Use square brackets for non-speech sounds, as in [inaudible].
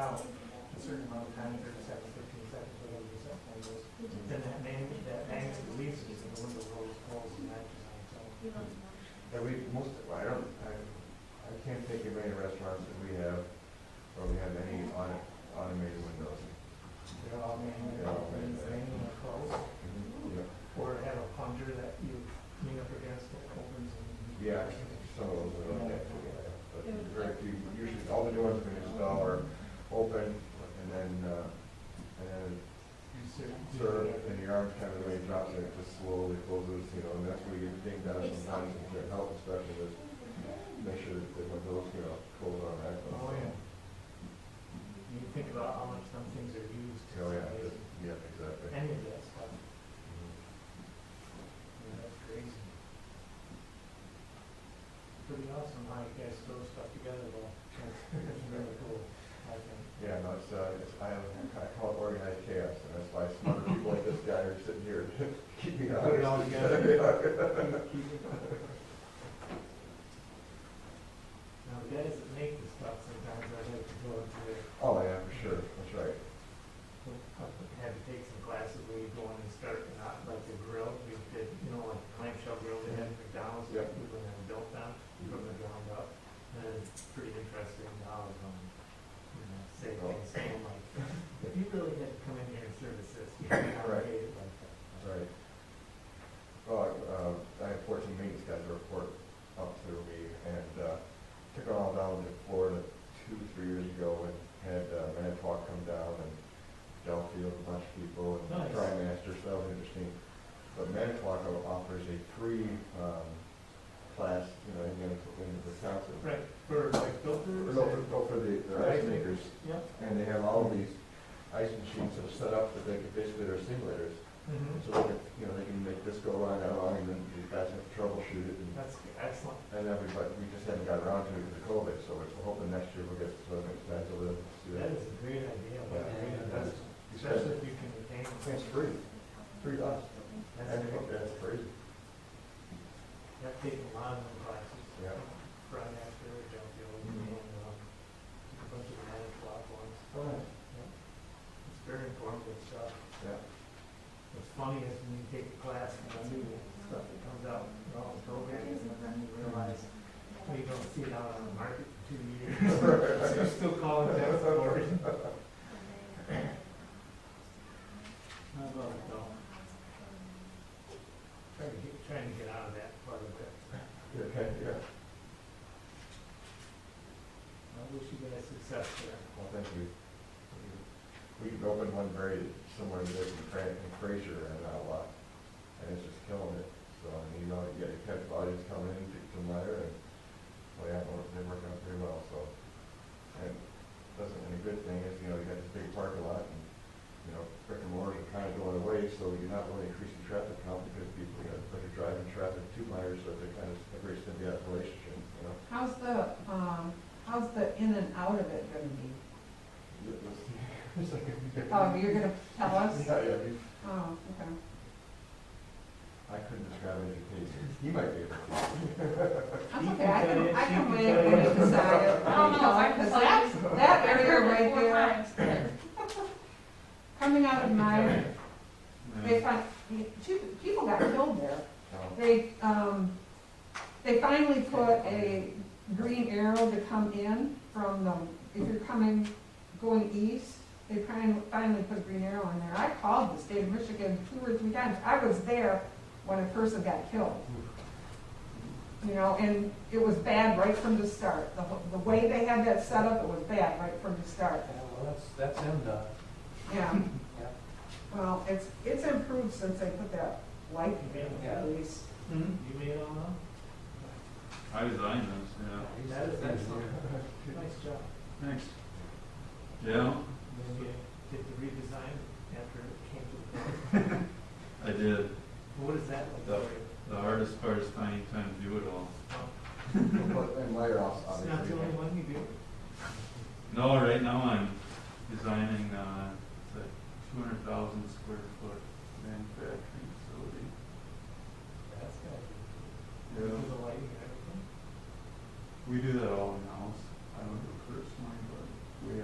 out a certain amount of time, thirty seconds, fifteen seconds, whatever the set time is, then that man, that man leaves it, and the window rolls, rolls, and that, so. And we, most, I don't, I, I can't think of any restaurants that we have where we have any auto- automated windows. They're all manual, They're all manual. manual close, Yeah. or have a plunger that you lean up against that opens and. Yeah, some of those are like that, but very few, usually all the doors we install are open and then, uh, and then You serve. serve and your arm kind of way drops and it just slowly closes, you know, and that's where you think that sometimes if you're a health specialist, make sure that the windows, you know, close on that. Oh, yeah. You think about how much some things are used. Oh, yeah, just- yeah, exactly. Any of that stuff, Mhm. I mean, that's crazy. Pretty awesome how you guys throw stuff together though, it's really cool, I think. Yeah, no, it's, uh, it's, I, I call it organized chaos, and that's why smart people like this guy are sitting here [laughs] keeping Put it all together. Now, the guys that make this stuff sometimes I like to go into their [laughs] Oh, yeah, for sure, that's right. had to take some classes where you go in and start not like the grill, we did, you know, like clamshell grill they had at McDonald's, Yeah. that people had built them from the ground up. And it's pretty interesting how, um, you know, say Oh. things, saying [laughs] like, if you really had to come in here and service this, you could Right. not pay it like that. That's right. Well, uh, I had fourteen meetings, got the report up through me, and, uh, took it all down to Florida two, three years ago, and had, uh, Manitowoc come down, and Delfield, a bunch of people, and Nice. Tri Master, so that was interesting. But Manitowoc offers a free, um, class, you know, in the, in Wisconsin. Right, for like filters? Go for, go for the, the ice makers, Yep. and they have all these ice machines that are set up that they can basically, they're simulators. Mhm. So they can, you know, they can make this go on and on, and then you guys have to troubleshoot it, and, That's excellent. and then we, but we just haven't got around to it because of COVID, so we're hoping next year we'll get some expensive ones to do That that. is a great idea, but Yeah. yeah, that's, You said especially it. if you can retain. it. It's free, free to us, That's and great. that's crazy. I've taken a lot of them classes. Yeah. Right after Delfield Mhm. and, um, a bunch of managed block ones. It's very informative stuff. Yeah, What's funny is when you take a class and the new stuff that comes out, and all the programs, and then you realize, well, you don't see it out on the market for two years. So you're still calling that for it. How about it though? Trying to get, trying to get out of that part of it. yeah, okay, yeah, I wish you guys success there. well, thank you. We opened one very similar to this in Fran, in Fraser, and, uh, and it's just killing it, so, I mean, you know, you gotta catch volumes coming in, to come later, and, well, yeah, they're- they're working out pretty well, so. And doesn't, and a good thing is, you know, you got this big parking lot, and, you know, brick and mortar are kinda going away, so you're not really increasing traffic count, because people, you know, they're driving traffic to Myers, so they're kind of, they're symbiotic relationship, you know? How's the, um, how's the in and out of it gonna be? It was- [laughs] It's like. a- Oh, you're gonna tell us? Yeah, yeah, you- Oh, okay. I couldn't describe it in detail. He might be able to. That's okay, I can, I can wait when you decide. it. I don't know, I Because just that, like. that area right Four there, times. coming out of my, they find, two, people got killed there. No. They, um, they finally put a green arrow to come in from the, if you're coming, going east, they fin- finally put a green arrow in there. I called the state of Michigan two or three times. I was there when a person got killed. You know, and it was bad right from the start. The, wh- the way they had that set up, it was bad right from the start. Yeah, well, that's, that's MDOT. Yeah, Yeah. well, it's, it's improved since they put that light in, at least. Hmm? You made all that? I designed those, yeah. That is excellent. Nice job. Thanks. Yeah, Then you did the redesign after it came to the board. I did. What is that like? The- The hardest part is finding time to do it all. But- And later off, It's not the obviously. only one you do. No, right now I'm designing, uh, it's a two hundred thousand square foot manufacturing facility. That's good. Yeah. The lighting and everything. We do that all in-house.